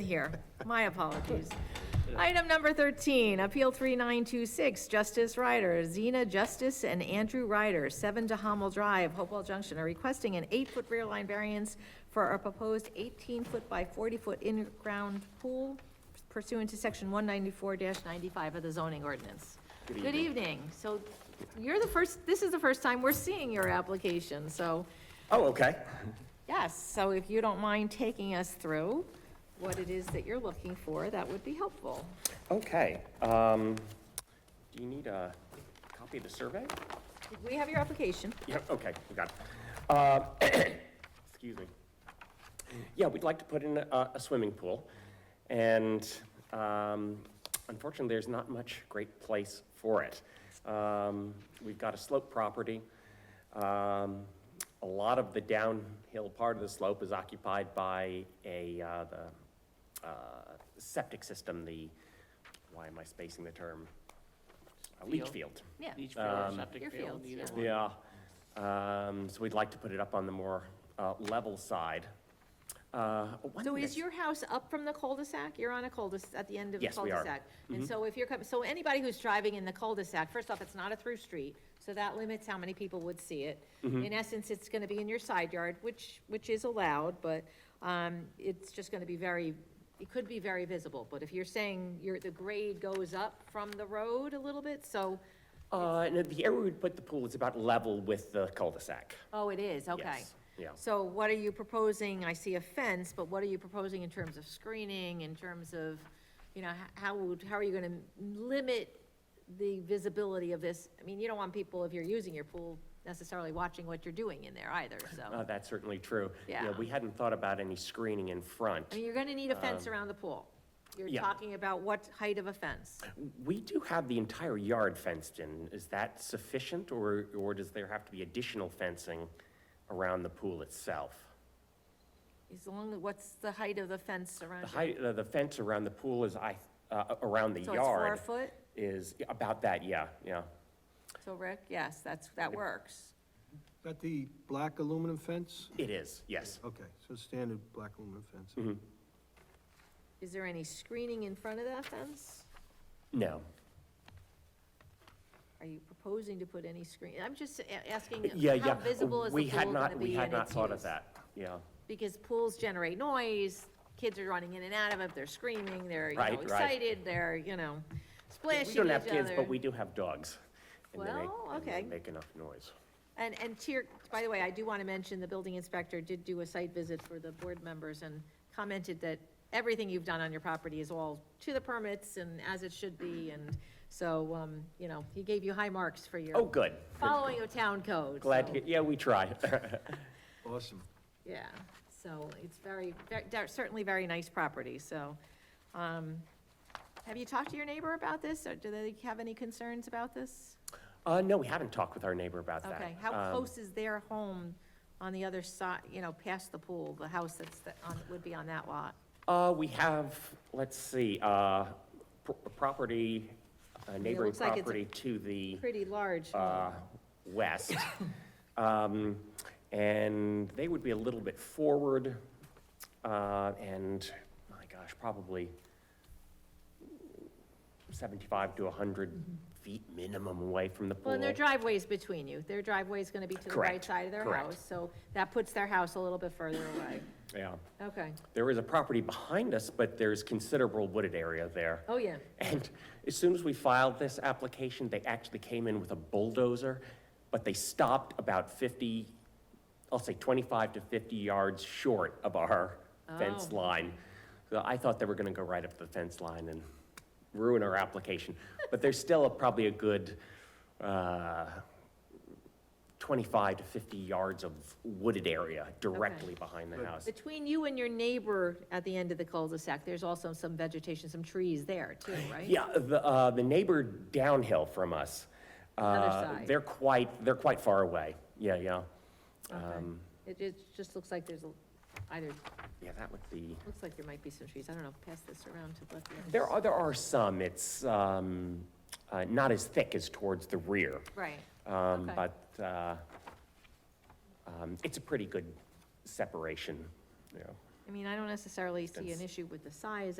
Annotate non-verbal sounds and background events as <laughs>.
Here, my apologies. Item number 13, Appeal 3926, Justice Ryder, Zena Justice and Andrew Ryder, 7 DeHammel Drive, Hopewell Junction, are requesting an 8-foot rear line variance for a proposed 18-foot by 40-foot in-ground pool pursuant to Section 194-95 of the zoning ordinance. Good evening. So you're the first, this is the first time we're seeing your application, so, Oh, okay. yes, so if you don't mind taking us through what it is that you're looking for, that would be helpful. Okay. Um, do you need a copy of the survey? Did we have your application? Yeah, okay, we got it. Uh, <clears throat> excuse me. Yeah, we'd like to put in a, a swimming pool. And, um, unfortunately, there's not much great place for it. Um, we've got a slope property. Um, a lot of the downhill part of the slope is occupied by a, uh, the, uh, septic system, the, why am I spacing the term? A leach Field. field. Yeah. Each field or Um, Your septic field, fields, either yeah. one. Yeah, um, so we'd like to put it up on the more, uh, level side. Uh, one So next- is your house up from the cul-de-sac? You're on a cul-de-sac, at the end of the Yes, we are. Mm-hmm. cul-de-sac? And so if you're, com- so anybody who's driving in the cul-de-sac, first off, it's not a through street, so that limits how many people would see it. Mm-hmm. In essence, it's gonna be in your side yard, which, which is allowed, but, um, it's just gonna be very, it could be very visible. But if you're saying your, the grade goes up from the road a little bit, so, Uh, no, the area we'd put the pool is about level with the cul-de-sac. oh, it is, okay. Yes, yeah. So what are you proposing? I see a fence, but what are you proposing in terms of screening, in terms of, you know, h- how would, how are you gonna limit the visibility of this? I mean, you don't want people, if you're using your pool, necessarily watching what you're doing in there either, Uh, so. that's certainly true. Yeah. We hadn't thought about any screening in I front. mean, you're gonna need a fence around the pool. You're um, yeah. talking about what height of a fence? We do have the entire yard fenced in. Is that sufficient, or, or does there have to be additional fencing around the pool itself? As long, as what's the height of the fence around The it? height, the- the fence around the pool is, I, uh, around the So it's four yard foot? is about that, yeah, yeah. So Rick, yes, that's, that works. Is that the black aluminum fence? It is, yes. Okay, so standard black aluminum fence. Is there any screening in front of that fence? No. Are you proposing to put any screen, I'm just a- asking, Uh, Yeah, yeah. how visible is the We had pool not- gonna be We had and not its thought of use? that, yeah. Because pools generate noise, kids are running in and out of it, they're screaming, they're, you Right, know, right. excited, they're, you know, We splashing each don't other. have kids, but we do have dogs. and they make- Well, and they okay. Make enough noise. And, and to your, by the way, I do want to mention, the building inspector did do a site visit for the board members and commented that everything you've done on your property is all to the permits and as it should be, and so, um, you know, he gave you high marks for Oh, your good. following of town code. Glad so- to, hear- yeah, we try. <laughs> Awesome. Yeah, so it's very, ver- they're certainly very nice property, so. um, Have you talked to your neighbor about this, or do they have any concerns about this? Uh, no, we haven't talked with our neighbor about that. Okay, how Um, close is their home on the other side, you know, past the pool, the house that's, that on, would be on that lot? Uh, we have, let's see, uh, pr- property, uh, neighboring looks like it's a property to the. Pretty large. uh, home. west. Um, And they would be a little bit forward, uh, and, my gosh, probably 75 to 100 feet minimum away from the Well, pool. and their driveway's between you, their driveway's gonna be to the right Correct, side of their correct. house, so that puts their house a little bit further away. Yeah. Okay, There is a property behind us, but there's considerable wooded area there. oh, yeah. And as soon as we filed this application, they actually came in with a bulldozer, but they stopped about 50, I'll say 25 to 50 yards short of our fence Oh. line. So I thought they were going to go right up to the fence line and ruin our application. But there's still a- probably a good uh, 25 to 50 yards of wooded area directly behind the house. Between you and your neighbor at the end of the cul-de-sac, there's also some vegetation, some trees there too, right? Yeah, the, uh, the neighbor downhill from us. Other uh, side. They're quite, they're quite far away. Yeah, yeah. Okay. Um, It, it just looks like there's a, either, Yeah, that would be, looks like there might be some trees. I don't know, pass this around to let the. there are, there are some. It's, um, uh, not as thick as towards the rear. Right. Um, Okay. but, uh, um, it's a pretty good separation, you know. I mean, I don't necessarily see an Fence. issue with the size